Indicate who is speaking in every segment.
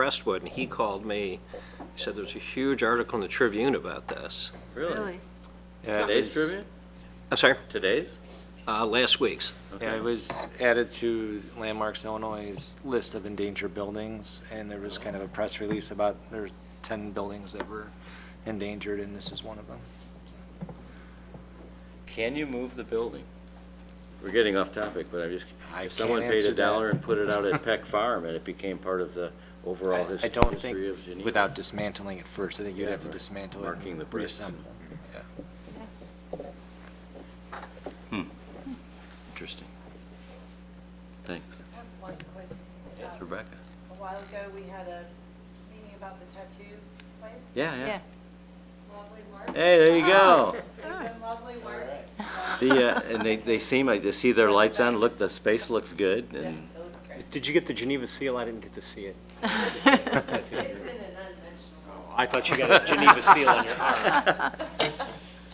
Speaker 1: Crestwood, and he called me. He said there was a huge article in the Tribune about this.
Speaker 2: Really?
Speaker 3: Yeah, it
Speaker 2: Today's
Speaker 3: was-
Speaker 2: trivia?
Speaker 1: I'm sorry,
Speaker 2: Today's?
Speaker 1: uh, last week's.
Speaker 3: Yeah, it was added to Landmarks Illinois' list of endangered buildings, and there was kind of a press release about there's 10 buildings that were endangered, and this is one of them.
Speaker 2: Can you move the building? We're getting off topic, but I just,
Speaker 3: I
Speaker 2: if someone
Speaker 3: can't
Speaker 2: paid
Speaker 3: answer
Speaker 2: a
Speaker 3: that.
Speaker 2: dollar and put it out at Peck Farm and it became part of the overall his-
Speaker 3: I don't
Speaker 2: history
Speaker 3: think,
Speaker 2: of Geneva.
Speaker 3: without dismantling it first, I think you'd
Speaker 2: Yeah,
Speaker 3: have to
Speaker 2: right.
Speaker 3: dismantle it
Speaker 2: Marking the
Speaker 3: and
Speaker 2: bricks.
Speaker 3: reassemble. Yeah.
Speaker 2: Hmm. Interesting. Thanks.
Speaker 4: I have one quick.
Speaker 2: Yes,
Speaker 4: um,
Speaker 2: Rebecca.
Speaker 4: A while ago, we had a meeting about the tattoo place.
Speaker 2: Yeah, yeah.
Speaker 4: Lovely work.
Speaker 2: Hey, there you go.
Speaker 4: They've done lovely work. so-
Speaker 2: The, uh, and they, they seem like, they see their lights on, look, the space looks good and
Speaker 4: It looks great.
Speaker 5: Did you get the Geneva seal? I didn't get to see it.
Speaker 4: It's in an unmentionable.
Speaker 5: I thought you got a Geneva seal on your arm.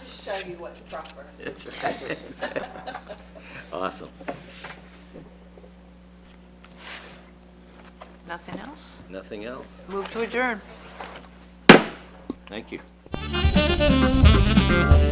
Speaker 4: Just show you what's proper.
Speaker 2: awesome.
Speaker 6: Nothing else?
Speaker 2: Nothing else.
Speaker 6: Move to adjourn.
Speaker 2: Thank you.